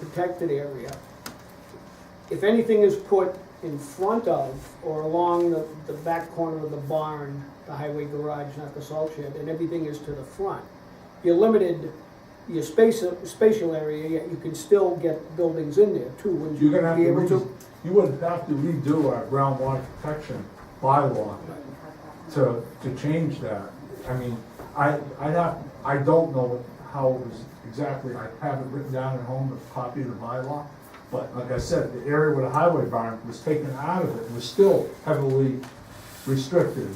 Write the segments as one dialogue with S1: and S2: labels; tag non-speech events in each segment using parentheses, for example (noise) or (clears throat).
S1: protected area, if anything is put in front of or along the, the back corner of the barn, the highway garage, not the salt shed, and everything is to the front, you're limited, your space, spatial area, yet you can still get buildings in there too, wouldn't you
S2: You're gonna have
S1: be
S2: to,
S1: able
S2: re-
S1: to?
S2: you would have to redo our groundwater protection bylaw to, to change that. I mean, I, I have, I don't know how it was exactly, I have it written down at home, a copy of the bylaw. But like I said, the area where the highway barn was taken out of it was still heavily restricted.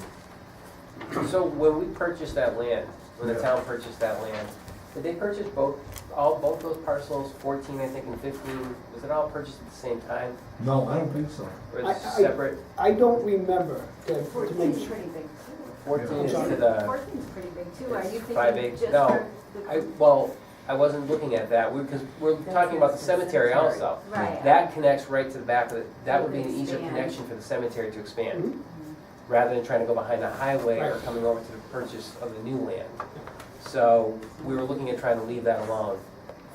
S3: So when we purchased that land, when the
S2: Yeah.
S3: town purchased that land, did they purchase both, all, both those parcels, fourteen, I think, and fifteen, was it all purchased at the same time?
S2: No, I don't think so.
S3: Or is
S1: I-
S3: it
S1: I-
S3: separate?
S1: I don't remember, to, to make
S4: Fourteen's
S1: sure.
S4: pretty big too.
S3: Fourteen
S2: I'm
S3: is
S1: sorry.
S3: to the,
S4: Fourteen's pretty big too. Are
S3: It's
S4: you
S3: five eight-
S4: thinking just
S3: no,
S4: for
S3: I,
S4: the?
S3: well, I wasn't looking at that, because we're talking about the cemetery also.
S4: Right.
S3: That connects right to the back of the, that would be an easier
S4: Expand.
S3: connection for the cemetery to
S1: Mhm.
S3: expand, rather than trying to go behind the highway or
S1: Mm-hmm. Right.
S3: coming over to the purchase of the new land. So we were looking at trying to leave that alone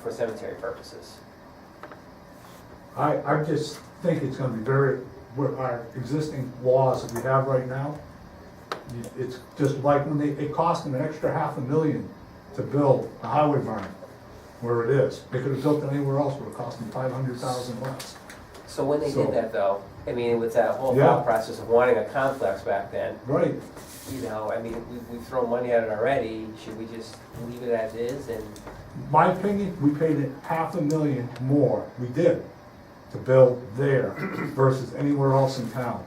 S3: for cemetery purposes.
S2: I, I just think it's gonna be very, with our existing laws that we have right now, you- it's just like when they, it cost them an extra half a million to build a highway barn where it is. They could have built it anywhere else, would have cost them five hundred thousand bucks.
S3: So when they
S2: So-
S3: did that though, I mean, with that whole
S2: Yeah.
S3: thought process of wanting a complex back then,
S2: Right,
S3: you know, I mean, we, we've thrown money at it already, should we just leave it as is and?
S2: my opinion, we paid it half a million more, we did, to build there (clears throat) versus anywhere else in town.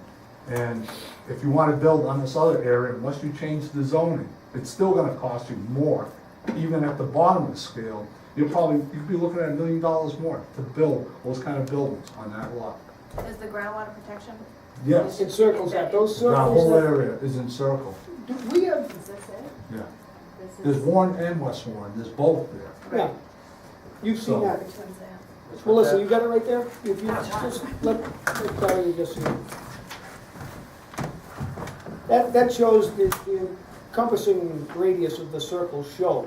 S2: And if you wanna build on this other area, unless you change the zoning, it's still gonna cost you more, even at the bottom of the scale. You're probably, you'd be looking at a million dollars more to build those kind of buildings on that lot.
S4: Is the groundwater protection,
S2: Yes,
S1: It circles that, those
S2: that whole
S1: circles
S2: area is encircled,
S1: that, do we have,
S4: is this it?
S2: yeah.
S4: This
S2: There's
S4: is-
S2: Warren and West Warren, there's both there.
S1: yeah, you've seen
S2: So-
S1: that.
S4: Which one's that?
S3: which
S1: Well,
S3: was
S1: listen,
S3: that?
S1: you got it right there? If you just, let, let Claudia just see. That, that shows the the encompassing radius of the circle show.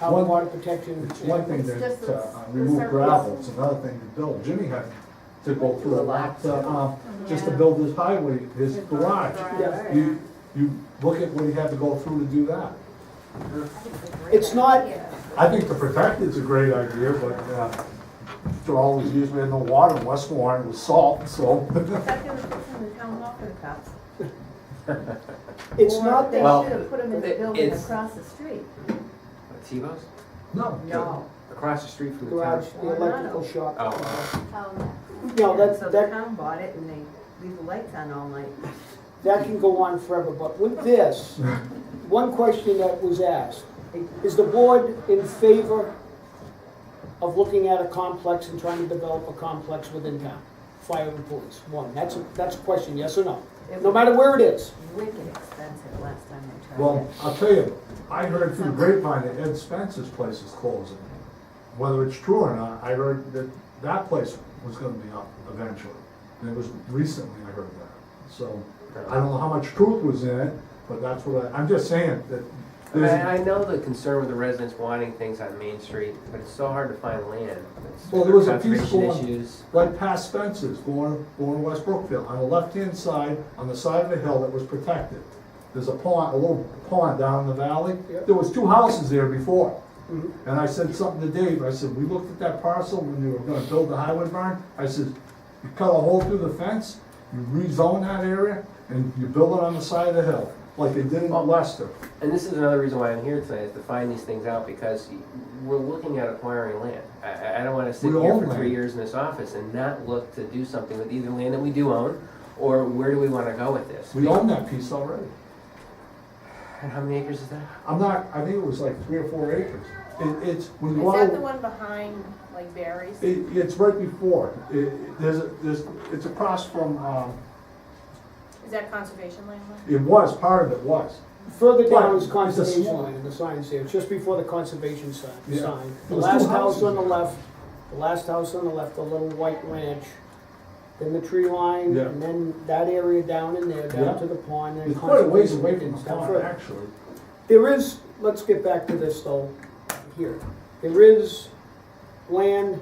S1: How
S2: One-
S1: water protection.
S2: It's one thing to,
S4: It's just
S2: to
S4: the-
S2: uh,
S4: the
S2: remove
S4: surface.
S2: gravel, it's another thing to build. Jimmy had to go through a lot, to, uh, just to
S4: Yeah.
S2: build his highway, his
S4: His
S2: garage.
S4: garage,
S2: You, you look at what he had to go through to do that.
S1: It's not-
S2: I think to protect it's a great idea, but, uh, for all those years we had no water in West Warren, it was salt, so. (laughs)
S5: That they were putting the town hall for the cops.
S1: It's not that,
S5: Or they should have put them in the
S3: Well,
S5: building
S3: it's-
S5: across the street.
S3: Tebow's?
S2: No.
S3: Across the street from the town?
S1: garage, the electrical shop.
S3: Oh, oh.
S4: Oh,
S1: No,
S5: And
S1: that,
S5: So the
S1: that,
S5: town bought it and they leave the lights on all night.
S1: that can go on forever, but with this, one question that was asked, is the board in favor of looking at a complex and trying to develop a complex within town? Fire and police, one, that's, a- that's a question, yes or no?
S5: It
S1: No
S5: was
S1: matter where it is,
S5: wicked expensive last time they tried it.
S2: Well, I'll tell you, I heard through the grapevine that Ed Spence's place is closing. Whether it's true or not, I heard that that place was gonna be up eventually. And it was recently I heard that. So, I don't know how much truth was in it, but that's what I, I'm just saying that
S3: I mean, I
S2: there's,
S3: I know the concern with the residents wanting things on Main Street, but it's so hard to find land. It's-
S2: Well, there was a few
S3: conservation
S2: squad-
S3: issues.
S2: right past Spence's, going, going West Brookfield, on the left-hand side, on the side of the hill that was protected. There's a pond, a little pond down in the valley.
S1: Yep.
S2: There was two houses there before.
S1: Mhm.
S2: And I said something to Dave, I said, we looked at that parcel when they were gonna build the highway barn, I said, you cut a hole through the fence, you rezone that area, and you build it on the side of the hill, like they did in Leicester.
S3: And this is another reason why I'm here tonight, is to find these things out, because we're looking at acquiring land. I- I, I don't wanna sit
S2: We
S3: here
S2: own
S3: for
S2: land.
S3: three years in this office and not look to do something with either land that we do own, or where do we wanna go with this?
S2: We own that piece already.
S3: And how many acres is that?
S2: I'm not, I think it was like three or four acres. It, it's, when you
S6: Is that the
S2: go,
S6: one behind, like Barry's?
S2: it, it's right before, it, it- there's, a- there's, it's across from, um,
S6: Is that conservation land one?
S2: it was, part of it was.
S1: further down is
S2: Right, it's a
S1: conservation
S2: small-
S1: line, and the sign's there, just before the conservation sign,
S2: Yeah.
S1: sign. The
S2: There was
S1: last
S2: two
S1: house on the
S2: houses.
S1: left, the last house on the left, the little white ranch, then the tree line,
S2: Yeah.
S1: and then that area down in there,
S2: Yeah.
S1: down to the pond, and
S2: It's quite a ways away
S1: conservation
S2: from the
S1: down
S2: pond,
S1: further.
S2: actually.
S1: There is, let's get back to this though, here. There is land